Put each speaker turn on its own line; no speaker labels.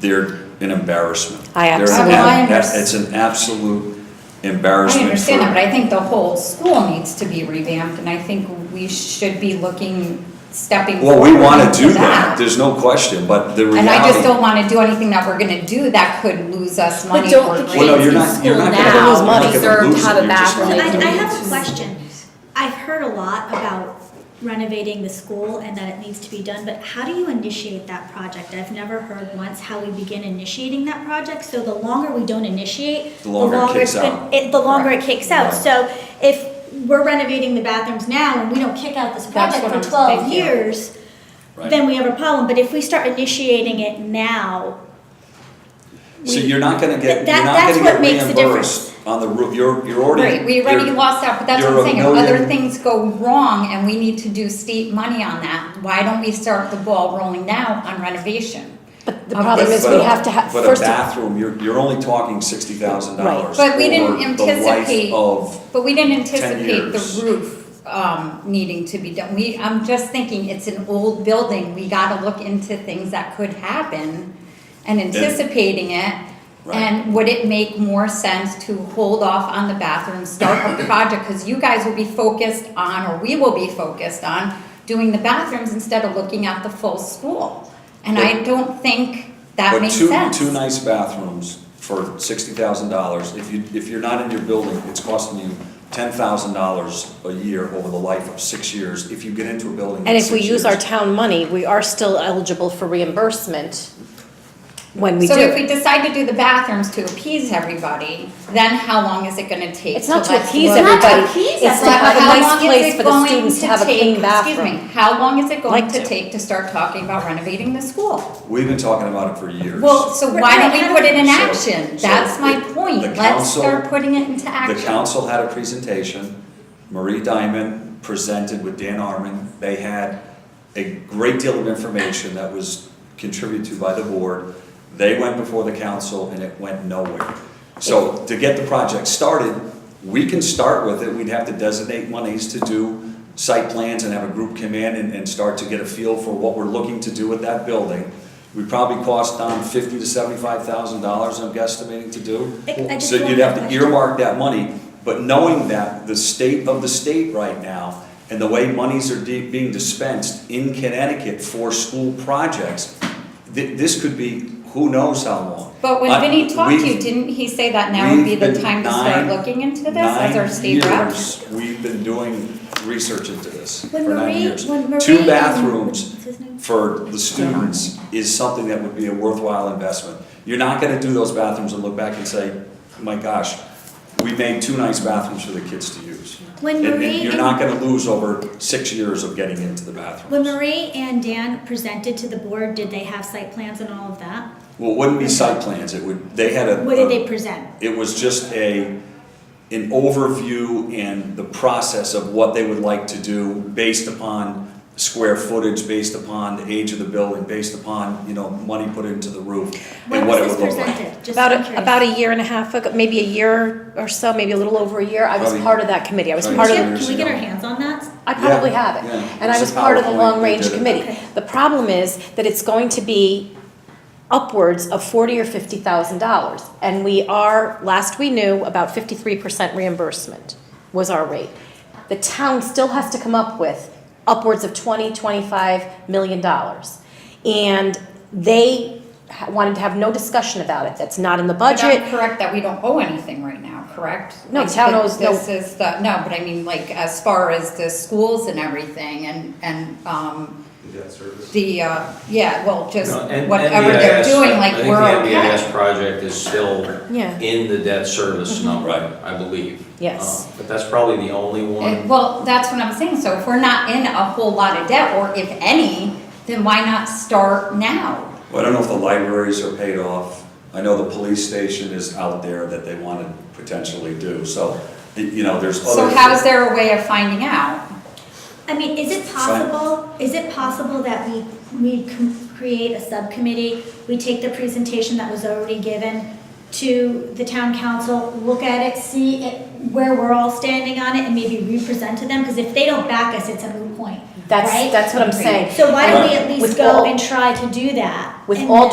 they're an embarrassment.
I
They're an
absolutely-
ab-
I
ab-
understand.
It's an absolute
I
embarrassment
understand that, but
for,
I think the whole school needs to be revamped, and I think we should be looking, stepping
well,
forward.
we wanna
into
do that, there's no question, but the
And
reality.
I just don't wanna do anything that we're gonna do that could lose us money.
But don't the
for
kids
Well, no, you're
in
not- you're
school
not gonna
lose
now
money.
deserve
Lose
to
it,
have a
you're just
bathroom?
not
I,
Like,
I have a question. I've heard a lot about renovating the school and that it needs to be done, but how do you initiate that project? I've never heard once how we begin initiating that project, so the longer we don't initiate,
The longer it
it's
kicks
been-
out.
it- The longer it kicks out,
Right.
so if we're renovating the bathrooms now and we don't kick out this
That's
project
what
for
I'm-
twelve
thank you.
years,
Right.
then we have a problem, but if we start initiating it now,
So you're not gonna get,
That-
you're not
that's
gonna
what
get
makes the
reimbursed on the roof, you're, you're already.
Right, we already
you're-
lost that, but that's what
you're
I'm
a
saying, if other
million-
things go wrong and we need to do state money on that, why don't we start the ball rolling now on renovation?
But the
But-
problem is
but
we
a-
have to have,
But a
first of,
bathroom, you're, you're only talking sixty thousand dollars.
But we didn't anticipate-
The life of,
But we didn't anticipate
years.
the roof, um, needing to be done, we, I'm just thinking, it's an old building, we gotta look into things that could happen and anticipating it.
Right.
And would it make more sense to hold off on the bathroom, start a project, cause you guys will be focused on, or we will be focused on, doing the bathrooms instead of looking at the full school. And I
But-
don't think that
but
makes
two,
sense.
two nice bathrooms for sixty thousand dollars, if you, if you're not in your building, it's costing you ten thousand dollars a year over the life of six years, if you get into a building
and
in
if we
six
use our
years.
town money, we are still eligible for reimbursement when we do.
So if we
it.
decide to do the bathrooms to appease everybody, then how long is it gonna take?
It's not
let
to appease
the-
Not to
everybody,
appease
it's to
But
have a
how
nice
long is
place
it
for the
going
students to have a
take-
clean
Excuse
bathroom.
me, how long is it going
Like
to
to.
take to start talking about renovating the school?
We've been talking about it for years.
Well, so
Right,
why don't we
right,
put it in
so-
action?
so
That's
the-
my
the
point, let's
council-
start putting it into
The
action.
council had a presentation, Marie Diamond presented with Dan Arman. They had a great deal of information that was contributed to by the board. They went before the council and it went nowhere. So to get the project started, we can start with it, we'd have to designate monies to do site plans and have a group come in and, and start to get a feel for what we're looking to do with that building. We probably cost Don fifty to seventy-five thousand dollars, I'm guesstimating to do.
I- I just
So you'd
want
have
that
to
question.
earmark that money, but knowing that the state of the state right now and the way monies are de- being dispensed in Connecticut for school projects, thi- this could be who knows how long.
But when
I-
Vinny talked to you,
we've-
didn't he say that now would be
we've
the
been
time to start
nine-
looking into this as our state
Nine
rep?
years, we've been doing research into this for
When
nine
Marie-
years.
when Marie
Two
and-
bathrooms
what's his name?
for the students is something that would be a worthwhile investment. You're not gonna do those bathrooms and look back and say, my gosh, we made two nice bathrooms for the kids to use.
When
And- and
Marie
you're
and-
not gonna lose over six years of getting into the
When
bathrooms.
Marie and Dan presented to the board, did they have site plans and all of that?
Well, it wouldn't be site plans, it would, they had a.
What did
a-
they present?
It was just a, an overview and the process of what they would like to do based upon square footage, based upon the age of the building, based upon, you know, money put into the roof
When
and what it
was
would
this
look like.
presented? Just
About,
I'm
a-
curious.
about a year and a half ago, maybe a year or so, maybe a little over a year, I was
Probably-
part of that committee, I was
probably
part of.
two
Can
years
can we get
ago.
our hands on that?
I probably
Yeah,
have it,
yeah.
and I
It's
was
a
part of the
PowerPoint, they
long-range
did it.
committee.
Okay.
The problem is that it's going to be upwards of forty or fifty thousand dollars, and we are, last we knew, about fifty-three percent reimbursement was our rate. The town still has to come up with upwards of twenty, twenty-five million dollars. And they ha- wanted to have no discussion about it, that's not in the
But
budget.
I'm correct that we don't owe anything right now, correct?
No,
Like,
town
th-
owes no-
This is the, no, but I mean, like, as far as the schools and everything and, and, um,
The debt service?
the, uh, yeah, well, just
No, and-
whatever they're
NDIS
doing, like,
I think
we're
the
okay.
NDIS project is still
Yeah.
in the debt service
Mm-hmm.
number,
Right.
I believe.
Yes.
Um, But that's probably the only
And-
one.
Well, that's what I'm saying, so if we're not in a whole lot of debt, or if any, then why not start now?
Well, I don't know if the libraries are paid off. I know the police station is out there that they want to potentially do, so, you know, there's
So
other.
how's there a way of finding out?
I mean, is it possible, is it possible that we, we com- create a subcommittee? We take the presentation that was already given to the town council, look at it, see it, where we're all standing on it, and maybe re-present to them? Because if they don't back us, it's a moot point,
That's-
right?
that's what I'm saying.
So why don't we at
With
least
all-
go and try to do that?
With
and
all
then-